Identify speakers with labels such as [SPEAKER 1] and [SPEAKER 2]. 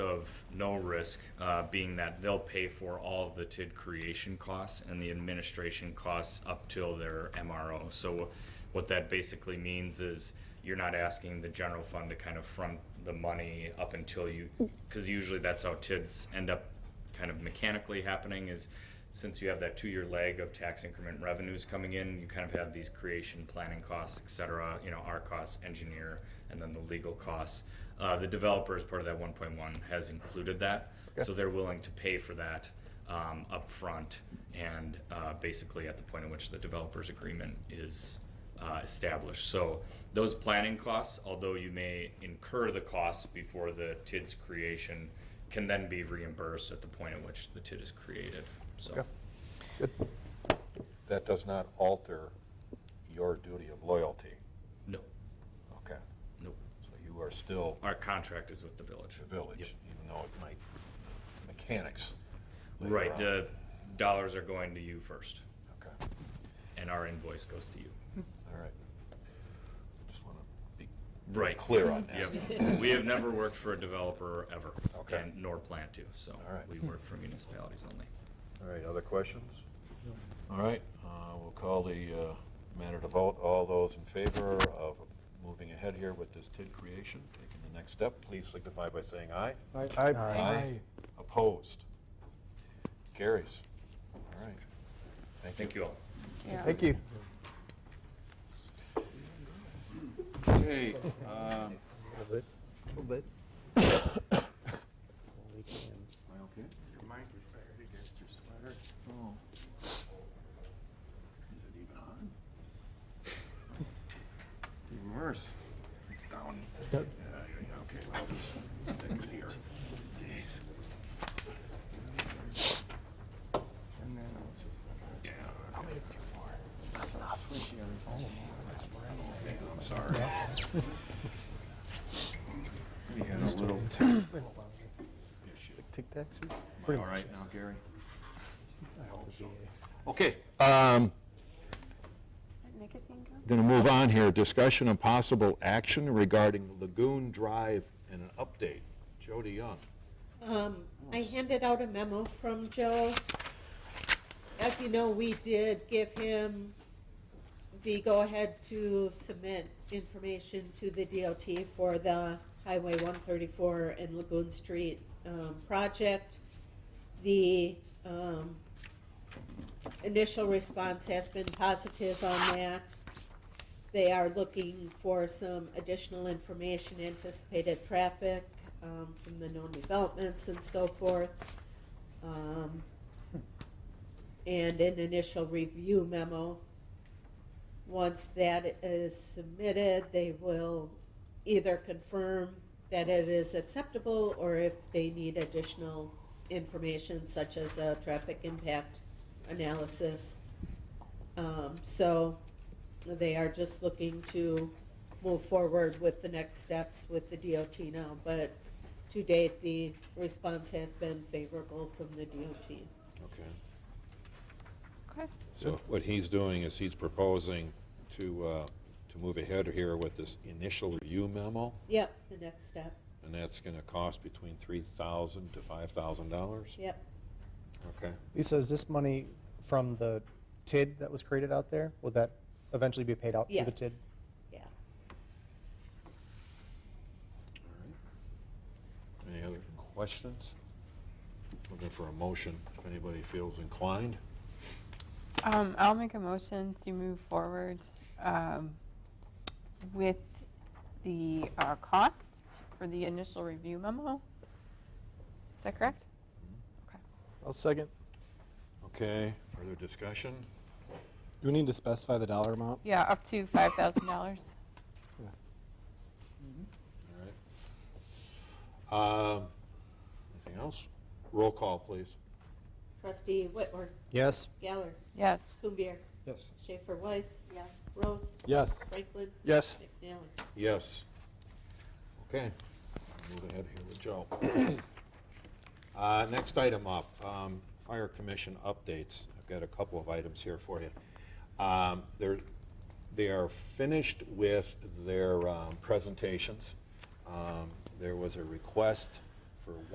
[SPEAKER 1] of no risk, uh, being that they'll pay for all of the TID creation costs and the administration costs up till their MRO. So what that basically means is you're not asking the general fund to kind of front the money up until you, because usually that's how TIDs end up kind of mechanically happening is since you have that two-year lag of tax increment revenues coming in, you kind of have these creation, planning costs, et cetera, you know, our costs, engineer, and then the legal costs. Uh, the developer, as part of that one point one, has included that, so they're willing to pay for that, um, upfront and, uh, basically at the point in which the developer's agreement is, uh, established. So those planning costs, although you may incur the costs before the TID's creation, can then be reimbursed at the point at which the TID is created, so.
[SPEAKER 2] Okay.
[SPEAKER 3] That does not alter your duty of loyalty.
[SPEAKER 1] No,
[SPEAKER 3] Okay.
[SPEAKER 1] no.
[SPEAKER 3] So you are still
[SPEAKER 1] Our contract is with the village.
[SPEAKER 3] the village,
[SPEAKER 1] Yep.
[SPEAKER 3] even though it might mechanics. later
[SPEAKER 1] Right,
[SPEAKER 3] on.
[SPEAKER 1] the dollars are going to you first,
[SPEAKER 3] Okay,
[SPEAKER 1] and our invoice goes to you.
[SPEAKER 3] all right. Just want to be
[SPEAKER 1] Right.
[SPEAKER 3] clear on that.
[SPEAKER 1] Yep. We have never worked for a developer ever,
[SPEAKER 3] Okay.
[SPEAKER 1] and nor plan to, so.
[SPEAKER 3] All right.
[SPEAKER 1] We work for municipalities only.
[SPEAKER 3] All right, other questions? All right, uh, we'll call the uh, matter to vote. All those in favor of moving ahead here with this TID creation, taking the next step, please signify by saying aye. Opposed? Carries. All right.
[SPEAKER 1] Thank you all.
[SPEAKER 2] Thank you.
[SPEAKER 4] Okay, um,
[SPEAKER 5] little bit. little bit. Well, we can.
[SPEAKER 4] okay?
[SPEAKER 6] Your mic is buried against your sweater.
[SPEAKER 4] Oh.
[SPEAKER 6] Is it even on? It's even worse. It's down.
[SPEAKER 5] down.
[SPEAKER 6] Yeah, yeah, yeah, okay, well, just stick it here. Jeez. And then I'll just. Yeah. I'll make two more. I'm
[SPEAKER 3] um, uh,
[SPEAKER 6] sorry. We had a little.
[SPEAKER 5] Tic Tacs?
[SPEAKER 4] All right now, Gary?
[SPEAKER 3] Okay. um,
[SPEAKER 7] Nicotine gum?
[SPEAKER 3] Going to move on here. Discussion and possible action regarding Lagoon Drive and an update. Jody Young.
[SPEAKER 8] Um, I handed out a memo from Joe. As you know, we did give him the go-ahead to submit information to the DOT for the Highway one thirty-four and Lagoon Street, um, project. The, um, initial response has been positive on that. They are looking for some additional information, anticipated traffic um, from the known developments and so forth. Um, And an initial review memo. Once that is submitted, they will either confirm that it is acceptable or if they need additional information such as a traffic impact analysis. Um, So they are just looking to move forward with the next steps with the DOT now, but to date, the response has been favorable from the DOT.
[SPEAKER 3] Okay.
[SPEAKER 7] Okay.
[SPEAKER 3] So what he's doing is he's proposing to, uh, to move ahead here with this initial review memo,
[SPEAKER 8] Yep, the next step,
[SPEAKER 3] and that's going to cost between $3,000 to $5,000?
[SPEAKER 8] yep.
[SPEAKER 3] Okay.
[SPEAKER 5] Lisa, is this money from the TID that was created out there? Will that eventually be paid out through the TID?
[SPEAKER 8] Yes, yeah.
[SPEAKER 3] Any other questions? Looking for a motion, if anybody feels inclined.
[SPEAKER 7] Um, I'll make a motion to move forward, um, with the, uh, cost for the initial review memo. Is that correct?
[SPEAKER 2] I'll second.
[SPEAKER 3] Okay, further discussion?
[SPEAKER 9] Do we need to specify the dollar amount?
[SPEAKER 7] Yeah, up to five thousand dollars.
[SPEAKER 3] All right. Um, Anything else? Roll call, please.
[SPEAKER 8] Trustee Whitmore,
[SPEAKER 5] Yes.
[SPEAKER 8] Geller,
[SPEAKER 7] Yes.
[SPEAKER 8] Kumbir,
[SPEAKER 9] Yes.
[SPEAKER 8] Schaefer Weiss,
[SPEAKER 7] Yes.
[SPEAKER 8] Rose,
[SPEAKER 9] Yes.
[SPEAKER 8] Franklin,
[SPEAKER 2] Yes.
[SPEAKER 8] McNally.
[SPEAKER 3] Yes. Okay, move ahead here with Joe. Uh, Next item up, um, Fire Commission updates. I've got a couple of items here for you. Um, They're, they are finished with their um, presentations. Um, There was a request for